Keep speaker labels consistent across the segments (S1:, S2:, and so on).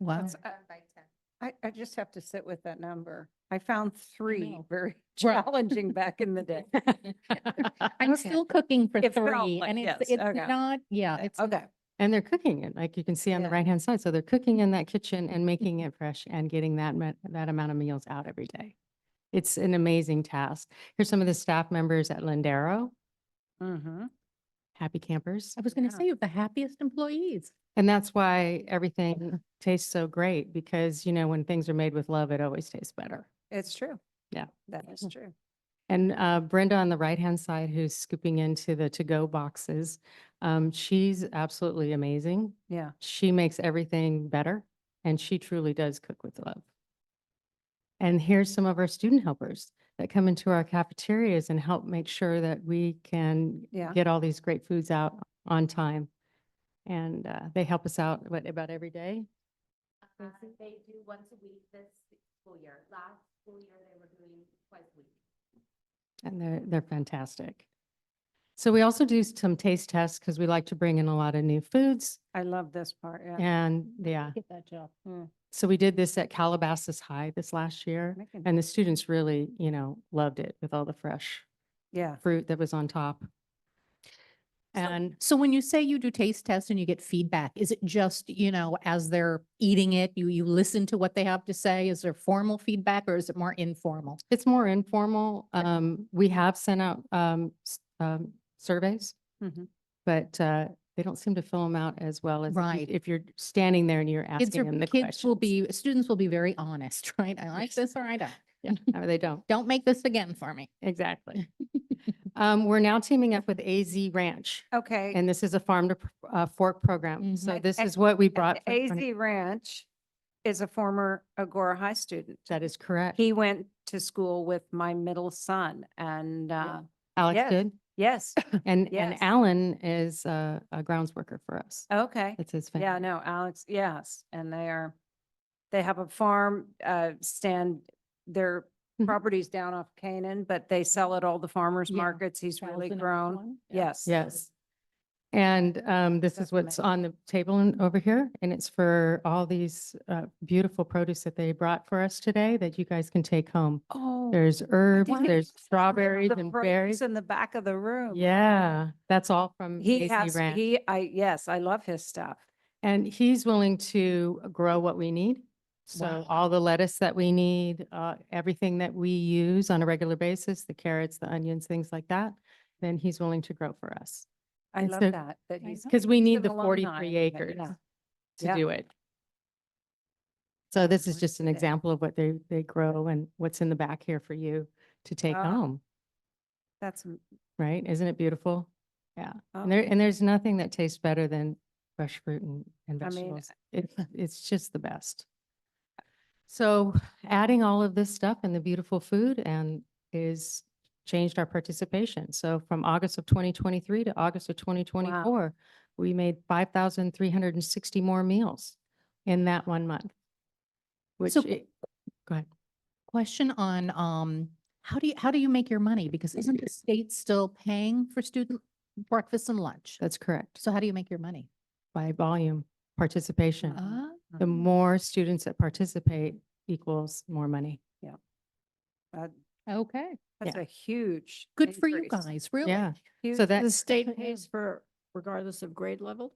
S1: Wow.
S2: That's- I, I just have to sit with that number. I found three
S1: know.
S2: very
S1: Right.
S2: challenging back in the day.
S1: I'm
S2: Okay.
S1: still cooking for
S2: If they're all
S1: three
S2: like-
S1: and it's,
S2: yes,
S1: it's
S2: okay.
S1: not, yeah, it's.
S2: Okay,
S3: And they're cooking it, like you can see on the
S2: Yeah.
S3: right-hand side. So they're cooking in that kitchen and making it fresh and getting that, ma- that amount of meals out every day. It's an amazing task. Here's some of the staff members at Lindero,
S2: mm-hmm,
S3: happy campers.
S1: I was going to
S2: Yeah.
S1: say you have the happiest employees.
S3: And that's why everything tastes so great because, you know, when things are made with love, it always tastes better.
S2: it's true.
S3: Yeah.
S2: That is true.
S3: And uh, Brenda on the right-hand side, who's scooping into the to-go boxes, um, she's absolutely amazing.
S2: Yeah,
S3: She makes everything better and she truly does cook with love. And here's some of our student helpers that come into our cafeterias and help make sure that we can
S2: yeah,
S3: get all these great foods out on time. And uh, they help us out, what, about every day?
S4: Uh, They do once a week this school year. Last school year, they were doing twice a week.
S3: And they're, they're fantastic. So we also do some taste tests because we like to bring in a lot of new foods
S2: I love this part, yeah. Mm.
S3: and yeah.
S1: Get that job.
S3: So we did this at Calabasas High this last year
S2: Making-
S3: and the students really, you know, loved it with all the fresh
S2: Yeah,
S3: fruit that was on top. And
S1: So when you say you do taste tests and you get feedback, is it just, you know, as they're eating it, you, you listen to what they have to say? Is there formal feedback or is it more informal?
S3: it's more informal. Um, we have sent out, um, s- um, surveys.
S2: Mhm.
S3: But, uh, they don't seem to fill them out as well as if you-
S1: Right.
S3: if you're standing there and you're
S1: Kids
S3: asking
S1: are,
S3: them the question.
S1: kids will be, students will be very honest, right? I like
S3: Yes.
S1: this or I don't.
S3: No, they don't.
S1: Don't make this again for me.
S3: Exactly. Um, we're now teaming up with AZ Ranch,
S2: okay.
S3: and this is a farm to p- uh, fork program. So
S2: Mhm.
S3: this
S2: A-
S3: is what we
S2: and
S3: brought. for- for-
S2: AZ Ranch is a former Agora High student.
S3: That is correct.
S2: He went to school with my middle son and, uh,
S3: Alex
S2: yes.
S3: did.
S2: yes,
S3: And,
S2: Yes.
S3: and Alan is uh, a grounds worker for us.
S2: okay.
S3: It's his
S2: Yeah,
S3: family.
S2: no, Alex, yes, and they are, they have a farm, uh, stand, their
S3: Mhm.
S2: property's down off Canaan, but they sell at all the farmers
S1: Yeah,
S2: markets. He's really
S1: Thousand and
S2: grown.
S1: one? Yeah.
S2: Yes.
S3: Yes. And um, this is
S2: That's
S3: what's
S2: amazing.
S3: on the table and over here, and it's for all these uh, beautiful produce that they brought for us today that you guys can take home.
S2: Oh.
S3: There's herbs,
S2: didn't
S3: there's
S2: know that.
S3: strawberries
S2: The
S3: and
S2: produce
S3: berries.
S2: In the back of the room.
S3: Yeah, that's all from
S2: He
S3: AC
S2: has,
S3: Ranch.
S2: he, I, yes, I love his stuff.
S3: And he's willing to grow what we need. So
S1: Wow.
S3: all the lettuce that we need, uh, everything that we use on a regular basis, the carrots, the onions, things like that, then he's willing to grow for us.
S2: I
S3: And
S2: love
S3: so-
S2: that, that
S1: I
S2: he's.
S1: know.
S3: Because we
S2: he's
S3: need
S2: an
S3: the
S2: alumni
S3: forty-three
S2: of it,
S3: acres
S2: yeah.
S3: to
S2: Yeah.
S3: do it. So this is
S2: Right.
S3: just an
S2: Yeah.
S3: example of what they, they grow and what's in the back here for you to take
S2: Ah.
S3: home,
S2: That's, m-
S3: right? Isn't it beautiful?
S2: oh,
S3: And there, and there's nothing that tastes better than fresh fruit and, and
S2: I mean,
S3: vegetables. It, it's just the best. So adding all of this stuff and the beautiful food and is changed our participation. So from August of twenty twenty-three to August of twenty twenty-four, we made five thousand three hundred and sixty more meals in that one month. Which,
S1: So-
S3: i- go ahead.
S1: Question on, um, how do you, how do you make your money? Because isn't the state still paying for student breakfast and lunch?
S3: That's correct.
S1: So how do you make your money?
S3: By volume, participation.
S1: Ah,
S3: The
S2: Mhm.
S3: more students that participate equals more money.
S1: okay.
S2: that's a huge.
S1: Good for you
S2: increase.
S1: guys, really.
S3: Yeah.
S2: Huge
S3: So that,
S5: The state pays for, regardless of grade level,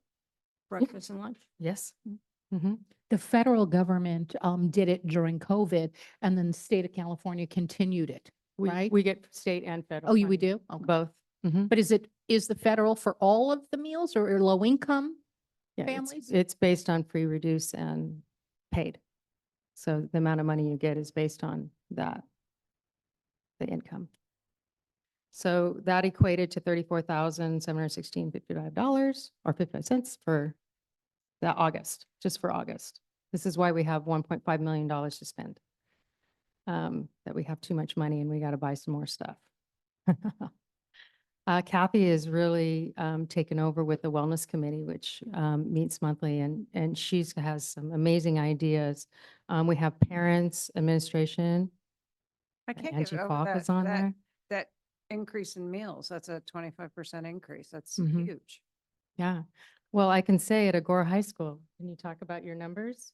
S5: breakfast and lunch?
S3: yes.
S1: Mm.
S3: Mm-hmm.
S1: The federal government, um, did it during COVID and then the state of California continued it.
S3: We,
S1: Right?
S3: we get state and federal.
S1: Oh, you, we
S3: funding,
S1: do? Okay.
S3: Both. Mhm.
S1: But is it, is the federal for all of the meals or or low income?
S3: Yeah, it's-
S1: Families?
S3: It's based on free, reduce and paid. So the amount of money you get is based on that, the income. So that equated to thirty-four thousand, seven hundred sixteen fifty-five dollars or fifty-five cents for the August, just for August. This is why we have one point five million dollars to spend. Um, that we have too much money and we got to buy some more stuff. Uh, Kathy has really, um, taken over with the Wellness Committee, which, um, meets monthly and, and she's has some amazing ideas. Um, we have parents, administration,
S2: I can't
S3: Angie
S2: get over
S3: Falk
S2: that,
S3: is on
S2: that-
S3: there.
S2: that increase in meals, that's a twenty-five percent increase. That's
S3: Mhm.
S2: huge.
S3: Yeah. Well, I can say at Agora High School, can you talk about your numbers?